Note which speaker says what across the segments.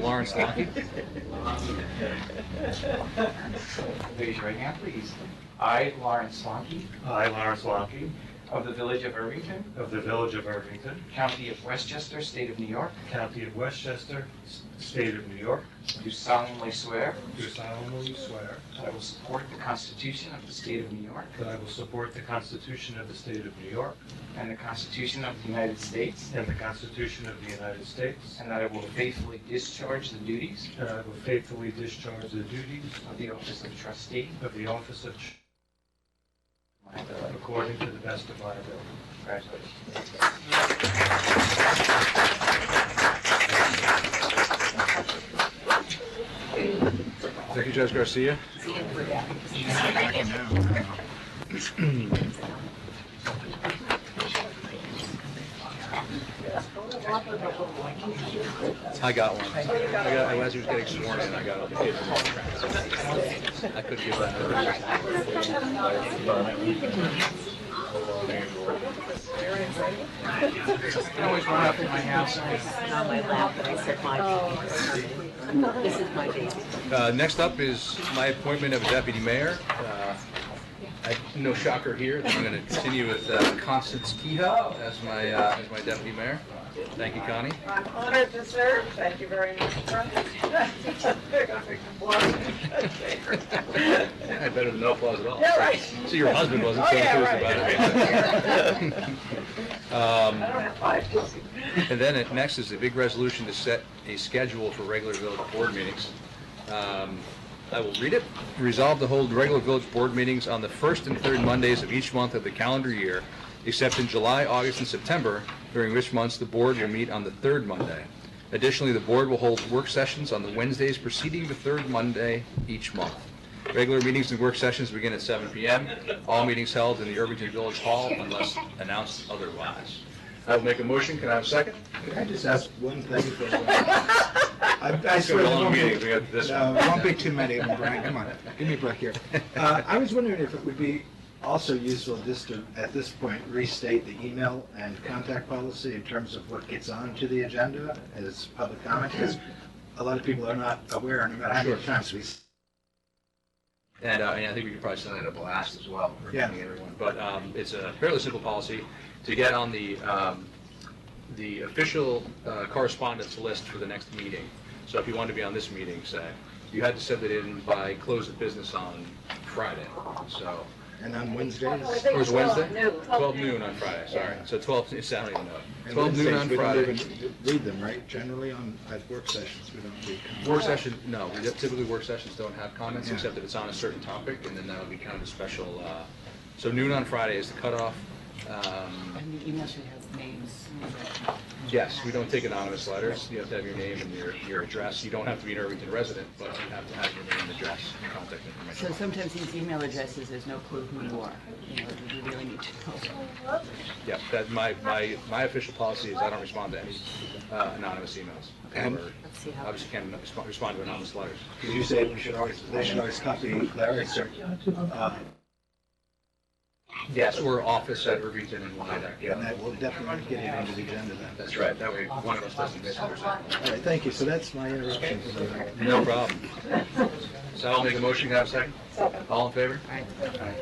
Speaker 1: Lawrence Lockett. Raise your right hand, please. I, Lawrence Lockett,
Speaker 2: I, Lawrence Lockey,
Speaker 1: of the Village of Irvington,
Speaker 2: of the Village of Irvington,
Speaker 1: County of Westchester, State of New York,
Speaker 2: County of Westchester, S- State of New York,
Speaker 1: do solemnly swear
Speaker 2: do solemnly swear
Speaker 1: that I will support the Constitution of the State of New York
Speaker 2: that I will support the Constitution of the State of New York
Speaker 1: and the Constitution of the United States,
Speaker 2: and the Constitution of the United States,
Speaker 1: and that I will faithfully discharge the duties
Speaker 2: and I will faithfully discharge the duties
Speaker 1: of the Office of Trustee.
Speaker 2: of the office of ch-
Speaker 1: of my village.
Speaker 2: according to the best of my ability.
Speaker 1: Congratulations.
Speaker 3: Thank you, Judge Garcia. I got one. I got, as he was getting sworn in, I got it. I could give that.
Speaker 1: You can always run up to my house.
Speaker 4: on my lap, and I said, my baby. This is my baby.
Speaker 3: Uh, next up is my appointment of a deputy mayor. Uh, I- No shocker here, I'm going to continue with uh, Constance Kehoe as my, uh, as my deputy mayor. Thank you, Connie.
Speaker 5: I'm honored to serve. Thank you very much.
Speaker 3: I had better than no applause at all.
Speaker 5: Yeah, right.
Speaker 3: So your husband wasn't
Speaker 5: Oh,
Speaker 3: so
Speaker 5: yeah,
Speaker 3: enthused about
Speaker 5: right.
Speaker 3: it.
Speaker 5: I don't
Speaker 3: Um,
Speaker 5: have five.
Speaker 3: And then it- next is the big resolution to set a schedule for regular village board meetings. Um, I will read it. Resolve to hold regular village board meetings on the first and third Mondays of each month of the calendar year, except in July, August, and September, during which months the board will meet on the third Monday. Additionally, the board will hold work sessions on the Wednesdays preceding the third Monday each month. Regular meetings and work sessions begin at 7 PM. All meetings held in the Irvington Village Hall unless announced otherwise. I will make a motion. Can I have a second?
Speaker 6: Can I just ask one thing? for a while? I I
Speaker 3: It's gonna
Speaker 6: swear,
Speaker 3: be a
Speaker 6: there
Speaker 3: long
Speaker 6: won't
Speaker 3: meeting.
Speaker 6: be-
Speaker 3: We got this
Speaker 6: no,
Speaker 3: one.
Speaker 6: there won't be too many of them, Brian, come on, give me a break here. Uh, I was wondering if it would be also useful just to, at this point, restate the email and contact policy in terms of what gets onto the agenda as public comment, because a lot of people are not aware, no matter how many times we
Speaker 3: And, uh, and I think we could probably send out a blast as well. for
Speaker 6: Yeah.
Speaker 3: everyone. But, um, it's a fairly simple policy to get on the, um, the official uh, correspondence list for the next meeting. So if you wanted to be on this meeting, say, you had to send it in by close of business on Friday, so.
Speaker 6: and on Wednesdays.
Speaker 3: It was Wednesday?
Speaker 4: noon.
Speaker 3: 12 noon on Friday, sorry. So 12, it's, I don't even know.
Speaker 6: and
Speaker 3: 12 noon
Speaker 6: Wednesdays,
Speaker 3: on
Speaker 6: we don't
Speaker 3: Friday.
Speaker 6: even Read them, right? Generally on, at work sessions, we don't read comments.
Speaker 3: Work session, no, we don't- typically work sessions don't have comments,
Speaker 6: Yeah.
Speaker 3: except if it's on a certain topic, and then that would be kind of a special, uh, so noon on Friday is the cutoff. Um,
Speaker 4: And the email should have names.
Speaker 3: Yes, we don't take anonymous letters, you have to have your name and your, your address, you don't have to be an Irvington resident, but you have to have your name and address, and contact
Speaker 4: So
Speaker 3: information.
Speaker 4: sometimes these email addresses, there's no clue who you are. You know, we really need to know.
Speaker 3: Yeah, that, my, my, my official policy is I don't respond to any uh, anonymous emails.
Speaker 6: And-
Speaker 3: Or
Speaker 4: Let's see how.
Speaker 3: Obviously can't respond- respond to anonymous letters.
Speaker 6: Because you said we should always, they should always copy Larry's, uh,
Speaker 3: Yes, or office at Irvington and Wyandotte,
Speaker 6: and
Speaker 3: yeah.
Speaker 6: that will definitely get it into the agenda then.
Speaker 3: That's right, that way one of us doesn't miss it.
Speaker 6: All right, thank you, so that's my interruption.
Speaker 3: No problem. So I'll make a motion, can I have a second? All in favor?
Speaker 4: Aye.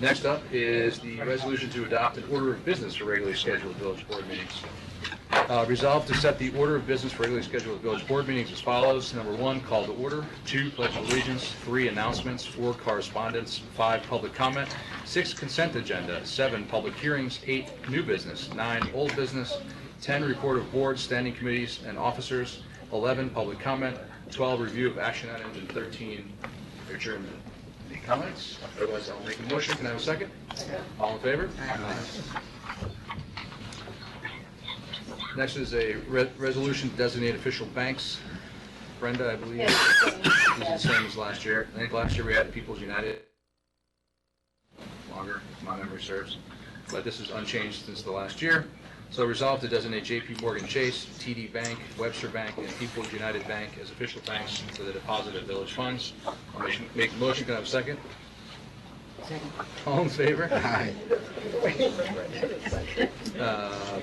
Speaker 3: Next up is the resolution to adopt an order of business for regularly scheduled village board meetings. Uh, Resolved to set the order of business for regularly scheduled village board meetings as follows. Number one, call to order. Two, pledge of allegiance. Three, announcements. Four, correspondence. Five, public comment. Six, consent agenda. Seven, public hearings. Eight, new business. Nine, old business. 10, report of boards, standing committees, and officers. 11, public comment. 12, review of action items. And 13, adjournment. Any comments? Otherwise, I'll make a motion. Can I have a second? All in favor? Next is a re- resolution to designate official banks. Brenda, I believe, is the same as last year. I think last year we had People's United. Longer, if my memory serves. But this is unchanged since the last year. So resolved to designate JP Morgan Chase, TD Bank, Webster Bank, and People's United Bank as official banks for the deposit of village funds. I'll make- Make the motion. Can I have a second?
Speaker 4: Second.
Speaker 3: All in favor?
Speaker 6: Hi.
Speaker 3: Um,